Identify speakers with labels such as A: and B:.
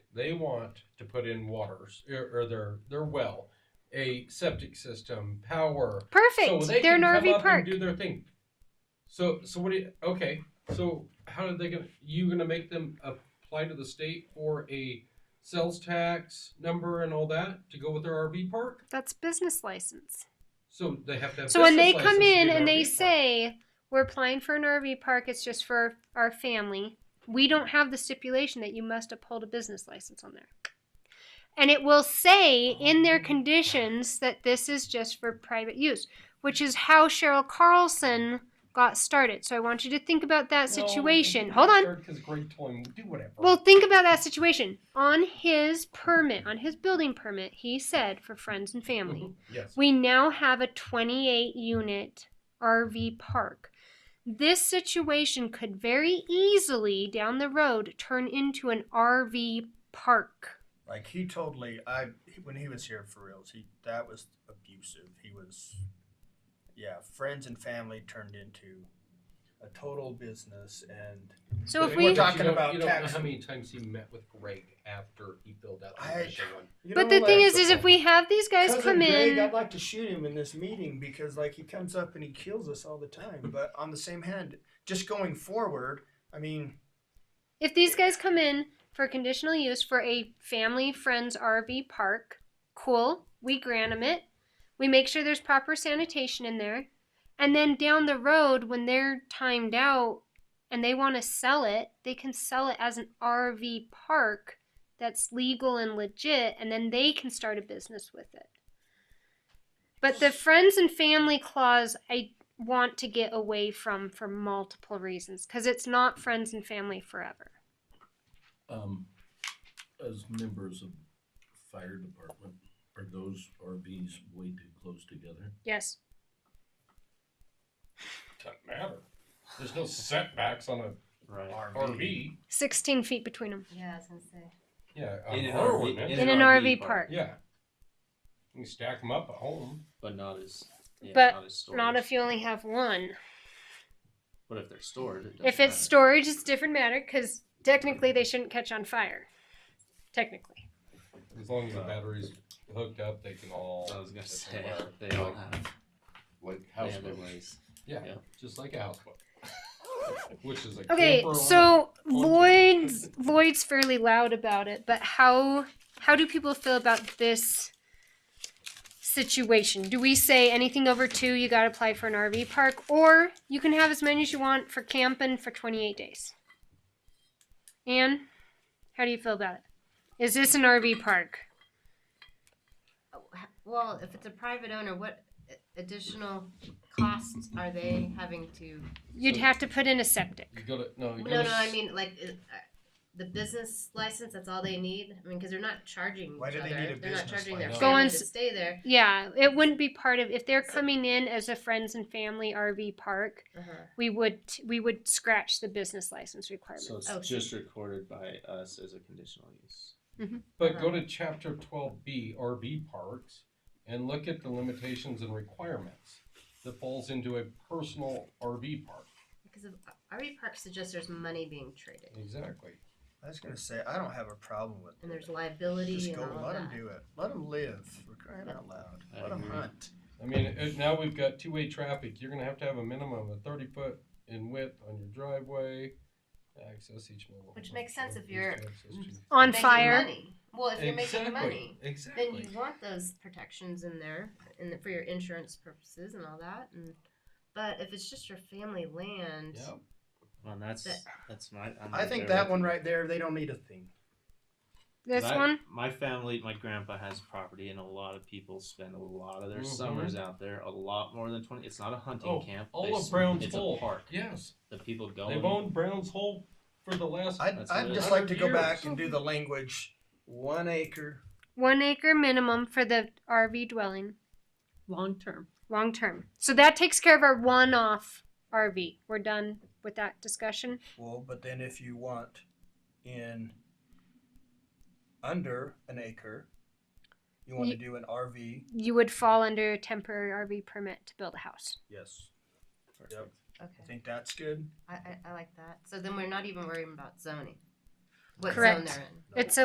A: they want to put in waters or, or their their well, a septic system, power.
B: Perfect.
A: So they
B: They're
A: can
B: in
A: come
B: RV
A: up
B: park.
A: and do their thing. So so what do you, okay. So how are they gonna you gonna make them apply to the state for a sales tax number and all that to go with their RV park?
B: That's business license.
A: So they have to have
B: So when they
A: business
B: come
A: license to
B: in
A: be an
B: and
A: RV
B: they
A: park.
B: say, we're applying for an RV park, it's just for our family, we don't have the stipulation that you must uphold a business license on there. And it will say in
A: Oh.
B: their conditions that this is just for private use, which is how Cheryl Carlson got started. So I want you to think about that
A: No,
B: situation.
A: it's
B: Hold on.
A: absurd 'cause Greg told him, do whatever.
B: Well, think about that situation. On his permit, on his building permit, he said for friends and family.
C: Mm-hmm.
A: Mhm. yes.
B: We now have a 28 unit RV park. This situation could very easily down the road turn into an RV park.
C: Like he totally, I when he was here for reals, he that was abusive. He was, yeah, friends and family turned into a total business, and
B: So if
C: But
A: But
C: we're
B: we
A: you
C: talking
A: don't-
C: about
A: you don't know
C: tax.
A: how many times he met with Greg after he filled out the
C: I-
A: initial one.
C: you
B: But
C: know,
B: the thing
C: like-
B: is is if we have these guys
C: Cousin
B: come
C: Greg,
B: in
C: I'd like to shoot him in this meeting because like he comes up and he kills us all the time. But on the same hand, just going forward, I mean,
B: if these guys come in for conditional use for a family friends RV park, cool, we grant them it. We make sure there's proper sanitation in there. And then down the road, when they're timed out and they want to sell it, they can sell it as an RV park that's legal and legit, and then they can start a business with it. But the friends and family clause, I want to get away from for multiple reasons because it's not friends and family forever.
D: Um, as members of fire department, are those RVs way too close together?
B: Yes.
A: Doesn't matter. There's no setbacks on a
E: Right.
C: RV.
B: 16 feet between them.
F: Yeah, I was gonna say.
A: Yeah,
E: In an
A: our
E: RV
A: ordinance.
B: In,
E: In
B: an,
E: an
B: RV,
E: RV
B: park.
E: park.
A: yeah. You can stack them up at home.
E: But not as. Yeah,
B: But
E: not, as storage.
B: Not if you only have one.
E: But if they're stored, it
B: If it's
E: stored.
B: storage, it's different matter because technically they shouldn't catch on fire. Technically.
A: As long as the battery's hooked up, they can all.
E: I was gonna
A: they
E: say
A: can work.
E: they all have
D: Like house
E: families.
A: Yeah,
E: Yeah.
A: just like a houseboat. Which is a
B: Okay,
A: camper on a-
B: so
A: on-
B: Lloyd's Lloyd's fairly loud about it, but how how do people feel about this situation? Do we say anything over two, you got to apply for an RV park, or you can have as many as you want for camping for 28 days? Anne, how do you feel about it? Is this an RV park?
F: Oh, h- Well, if it's a private owner, what a- additional costs are they having to?
B: You'd have to put in a septic.
A: You gotta, no, you
F: No,
A: gotta
F: no, I
A: s-
F: mean like uh, uh, the business license. That's all they need. I mean, because they're not charging.
C: Why
F: each
C: do they
F: other.
C: need a
F: They're not
C: business
F: charging their
A: license?
B: Go on
F: family to
B: s-
F: stay there.
B: Yeah, it wouldn't be part of if they're coming in as a friends and family RV park.
F: Uh-huh.
B: We would we would scratch the business license requirement.
E: So it's
F: Oh, so-
E: just recorded by us as a conditional use.
A: But go to chapter twelve B, RV parks, and look at the limitations and requirements that falls into a personal RV park.
F: Because of RV park suggests there's money being traded
A: Exactly.
C: I was gonna say I don't have a problem with
F: and
C: it.
F: there's liability
C: Just
F: and
C: go,
F: all
C: let
F: of
C: them
F: that.
C: do it. Let them live. We're crying out loud.
E: I
C: Let them
E: agree.
C: hunt.
A: I mean, it, now we've got two-way traffic. You're gonna have to have a minimum of thirty foot in width on your driveway. Access each mobile.
F: Which
A: home
F: makes sense if
A: used
F: you're-
A: access to-
B: on
F: Making
B: fire.
F: money. Well, if you're making money,
A: Exactly.
F: then you want those protections in there and for your insurance purposes and all that. And but if it's just your family land,
A: Yeah.
E: Well, and that's
F: That-
E: that's my. I'm
C: I
E: right
C: think
E: there
C: that
E: with
C: one
E: you.
C: right there, they don't need a thing.
B: This
E: My-
B: one,
E: My family, my grandpa has property, and a lot of people spend a lot of their
A: Mhm.
E: summers out there. A lot more than twenty. It's not a hunting
A: Oh,
E: camp.
A: All
E: They
A: of
E: s-
A: Brown's
E: It's
A: Hole.
E: a park.
A: Yes,
E: The people go.
A: they've
E: and-
A: owned Brown's Hole for the last.
C: I'd,
E: That's
C: I'd
E: it.
C: just like to
A: 100
C: go back
A: years.
C: and do the language. One acre.
B: one acre minimum for the RV dwelling,
G: long term.
B: long term. So that takes care of our one off RV. We're done with that discussion.
C: Well, but then if you want in under an acre, you want
B: Ye-
C: to do an RV.
B: You would fall under a temporary RV permit to build a house.
C: Yes.
E: Perfect.
C: I
F: okay,
C: think that's good.
F: I, I, I like that. So then we're not even worrying about zoning. What
B: Correct.
F: zone they're in.
B: It's a